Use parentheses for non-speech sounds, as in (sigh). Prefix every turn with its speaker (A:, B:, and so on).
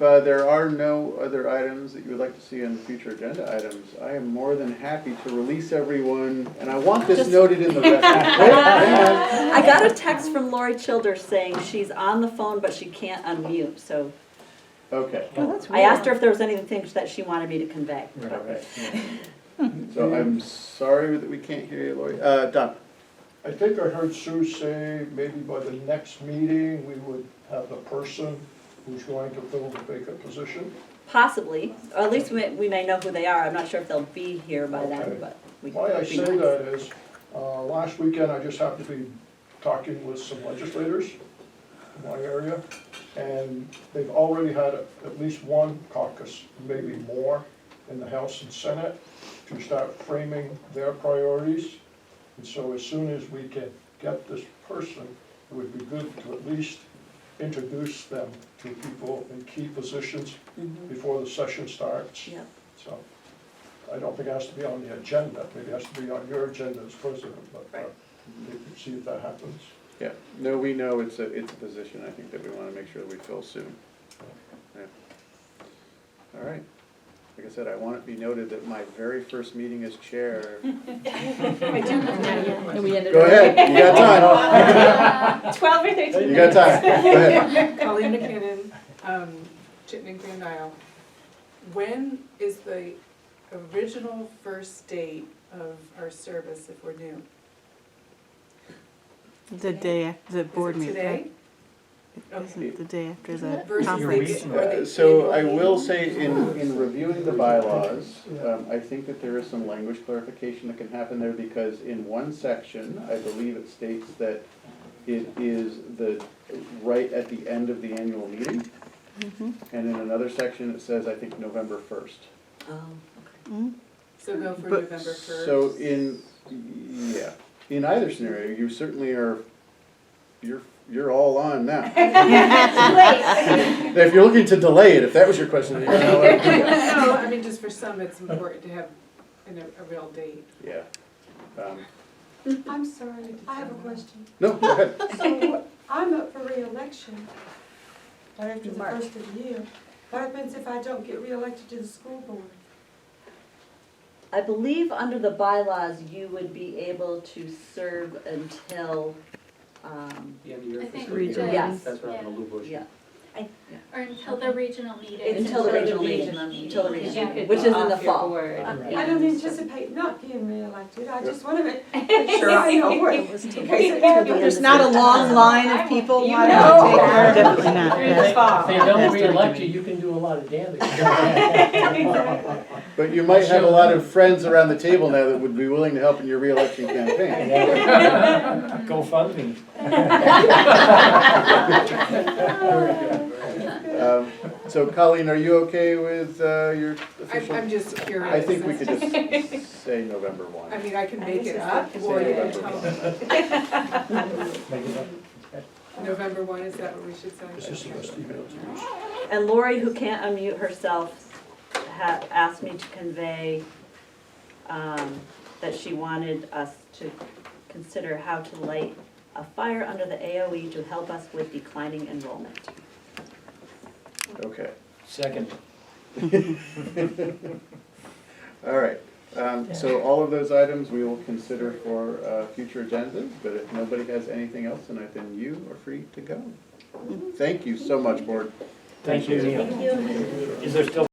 A: uh, there are no other items that you would like to see on future agenda items, I am more than happy to release everyone, and I want this
B: Just-
A: noted in the record. Hang on.
B: I got a text from Lori Childers saying she's on the phone, but she can't unmute, so
A: Okay.
B: I asked her if there was anything that she wanted me to convey.
A: All right. So I'm sorry that we can't hear you, Lori. Uh, Don?
C: I think I heard Sue say maybe by the next meeting, we would have the person who's going to fill the vacant position.
B: Possibly, or at least we, we may know who they are. I'm not sure if they'll be here by
C: Okay.
B: then, but we.
C: Why I
B: it'd be
C: say
B: nice.
C: that is, uh, last weekend, I just happened to be talking with some legislators in my area, and they've already had at least one caucus, maybe more, in the House and Senate to start framing their priorities. And so as soon as we can get this person, it would be good to at least introduce them to people in key positions
B: Mhm.
C: before the session starts.
B: Yep.
C: So, I don't think it has to be on the agenda, maybe it has to be on your agenda as president, but uh,
B: Right.
C: we can see if that happens.
A: Yeah, no, we know it's a, it's a position, I think, that we wanna make sure that we fill soon. Yeah. All right, like I said, I want it to be noted that my very first meeting as chair.
D: And we ended
A: Go ahead, you got
E: Twelve or thirteen
A: time, you
E: minutes.
A: got time, go ahead.
F: Colleen McKinnon, um, Chittenden Grand Isle. When is the original first date of our service if we're new?
D: The day, af- the
F: Is
D: board
F: it
D: meeting.
F: today? Okay.
D: Isn't the day after the
F: Versus
D: conference.
F: the, or
A: Uh,
F: the.
A: So I
F: annual
A: will
F: meeting?
A: say, in, in reviewing the bylaws, um, I think that there is some language clarification that can happen there, because in one section, I believe it states that it is the, right at the end of the annual meeting,
F: Mm-hmm.
D: Mhm.
A: and in another section, it says, I think, November first.
B: Oh,
D: Mm.
F: So go for
A: But-
F: November first.
A: So in, yeah, in either scenario, you certainly are, you're, you're all on
F: (laughs)
A: now. (laughs) If you're looking to delay it, if that was your question, you're
F: (laughs)
A: not allowed to do that.
F: (laughs) No, I mean, just for some, it's important to have an, a real date.
A: Yeah. Um,
G: I'm sorry, I have a question.
A: No, go ahead.
G: So I'm up for reelection right after the
B: March.
G: first of the year. What happens if I don't get reelected to the school board?
B: I believe under the bylaws, you would be able to serve until, um,
H: The end of your
I: I think
H: fiscal
D: we
H: year.
D: did.
B: Yes.
H: That's what happened to Lou Bush.
B: yeah,
I: Or until the regional meeting.
B: it's until the regional meeting, until the
E: You
B: regional,
E: could
B: which is in
E: off
B: the
E: your
B: fall.
E: board.
G: I don't anticipate not being reelected, I just want to make,
E: Sure.
G: sure I know where. in case it goes to the-
D: There's not a long line of people
E: You
D: wanting
E: know.
D: to take her. Definitely not.
E: Through the
D: That-
E: fall.
H: If they don't
D: That's what I
H: reelect you,
D: mean.
H: you can do a lot of damage. (laughs)
G: Exactly.
A: But you might have a lot of friends around the table now that would be willing to help in your reelection campaign.
H: Go fund me.
A: Um, So Colleen, are you okay with uh, your
F: I'm,
A: official?
F: I'm just curious.
A: I think we could just say November one.
F: I mean, I can make it up, or
A: Say
F: you can
A: November
F: tell me.
A: one.
F: November one, is that what we should say?
C: This is the best email to use.
B: And Lori, who can't unmute herself, ha asked me to convey, um, that she wanted us to consider how to light a fire under the AOE to help us with declining enrollment.
A: Okay.
H: Second.
A: All right, um, so all of those items we will consider for, uh, future agendas, but if nobody has anything else tonight, then you are free to go. Thank you so much, board.
H: Thank you, Neil.
B: you.
H: Is there still